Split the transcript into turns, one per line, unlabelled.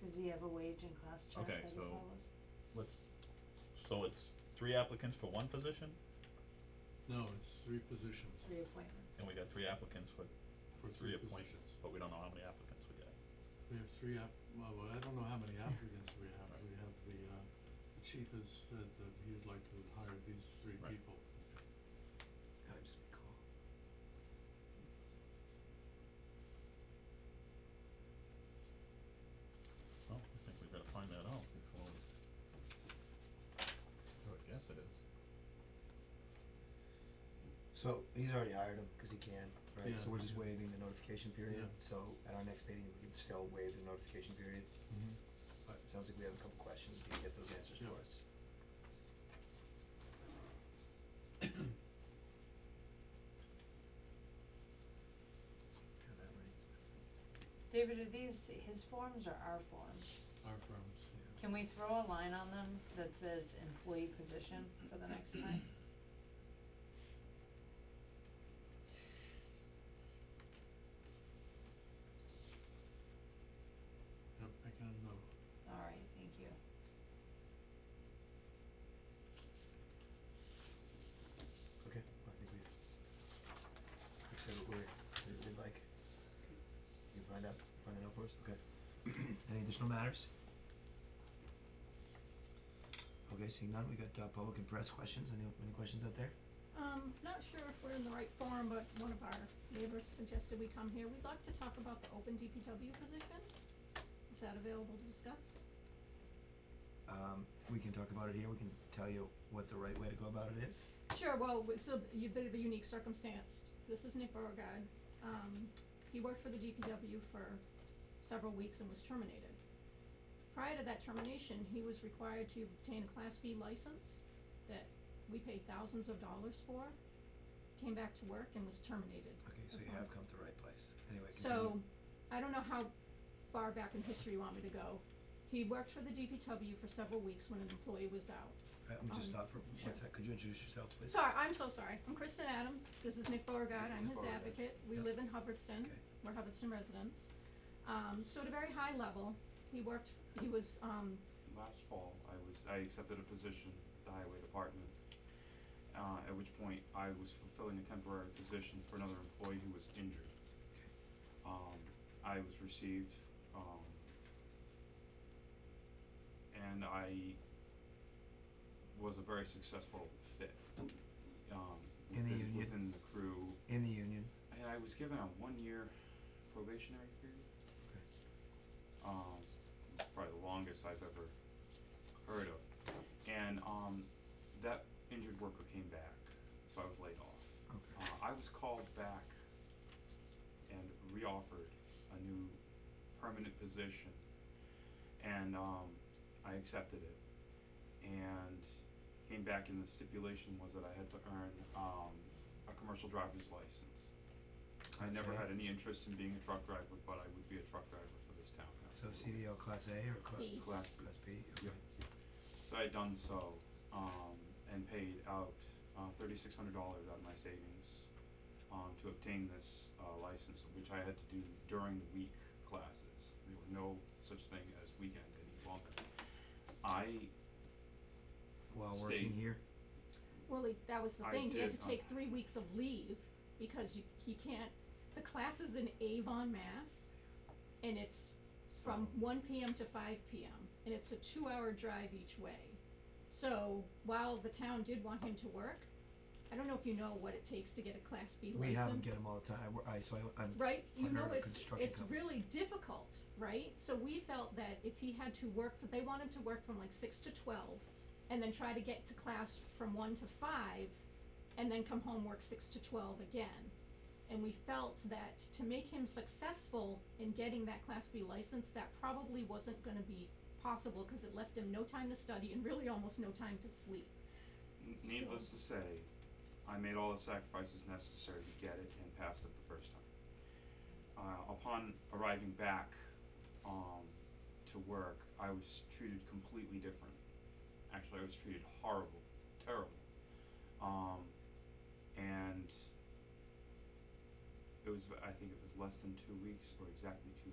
Does he have a wage and cost chart
Okay,
that he
so-
follows?
Let's, so it's three applicants for one position,
No, it's three positions,
Three appointments.
and we got three applicants for
for
three
three
appointments,
positions.
but we don't know how many applicants we got.
We have three app, well, well, I don't know how many applicants we have, we have the, uh, the chief has said that he would like to hire these three
Right.
people.
How did we call?
Well, I think we've gotta find that out before we. I would guess it is.
So he's already hired him, cause he can, right, so
Yeah.
we're just waiving the notification period,
Yeah.
so at our next meeting, we can still waive the notification period.
Mm-hmm.
But it sounds like we have a couple questions, we can get those answers for
Yeah.
us. God, that rates,
David, are these his forms or our forms?
Our firms,
yeah.
Can we throw a line on them that says employee position for the next time?
yep, I can know,
Alright, thank you.
Okay, well, I think we've, we've said what we're, we we'd like. You find out, find that out for us, okay. Any additional matters? Okay, seeing none, we got, uh, public and press questions, any, any questions out there?
Um, not sure if we're in the right forum, but one of our neighbors suggested we come here. We'd like to talk about the open DPW position. Is that available to discuss?
Um, we can talk about it here, we can tell you what the right way to go about it is.
Sure, well, it's a y- bit of a unique circumstance. This is Nick Beauregard. Um, he worked for the DPW for several weeks and was terminated. Prior to that termination, he was required to obtain a Class B license that we paid thousands of dollars for, came back to work and was terminated.
Okay, so you
Okay.
have come to the right place, anyway,
So,
continue.
I don't know how far back in history you want me to go. He worked for the DPW for several weeks when an employee was out.
Right, let me just
um,
stop for
sure.
one sec, could you introduce yourself, please?
Sorry, I'm so sorry. I'm Kristen Adam. This is Nick Beauregard. I'm
Ms.
his
Beauregard.
advocate. We
Yep.
live in Hubbardston.
Okay.
We're Hubbardston residents. Um, so at a very high level, he worked, he was, um,
Last fall, I was, I accepted a position at the highway department, uh, at which point I was fulfilling a temporary position for another employee who was injured. Um, I was received, um, and I was a very successful fit, um,
In the
within,
union?
within the crew.
In the union,
And I was given a one-year probationary period.
okay,
um, probably the longest I've ever heard of. And um, that injured worker came back, so I was laid off.
okay,
Uh, I was called back and reoffered a new permanent position, and um, I accepted it. And came back, and the stipulation was that I had to earn um, a commercial driver's license. I
Class
never
A?
had any interest in being a truck driver, but I would be a truck driver for this town.
so
absolutely.
CDL class A or class,
B.
Class B.
class B, okay.
Yep. So I had done so, um, and paid out, uh, thirty-six hundred dollars out of my savings, um, to obtain this, uh, license, which I had to do during the week classes. There were no such thing as weekend any longer. I,
While
State.
working here,
well, he- that was the
I
thing. He had
did,
to
uh,
take three weeks of leave because you, he can't, the class is in Avon, Mass. And it's
so,
from one PM to five PM, and it's a two-hour drive each way. So while the town did want him to work, I don't know if you know what it takes to get a Class B license.
we have them get them all the time, We're- I, so I, I'm
Right, you
partner
know,
of
it's,
construction
it's
companies.
really difficult, right? So we felt that if he had to work, for they want him to work from like six to twelve, and then try to get to class from one to five, and then come home, work six to twelve again. And we felt that to make him successful in getting that Class B license, that probably wasn't gonna be possible, cause it left him no time to study and really almost no time to sleep.
n- needless to say, I made all the sacrifices necessary to get it and passed it the first time. Uh, upon arriving back, um, to work, I was treated completely different. Actually, I was treated horrible, terrible. Um, and it was, I think it was less than two weeks or exactly two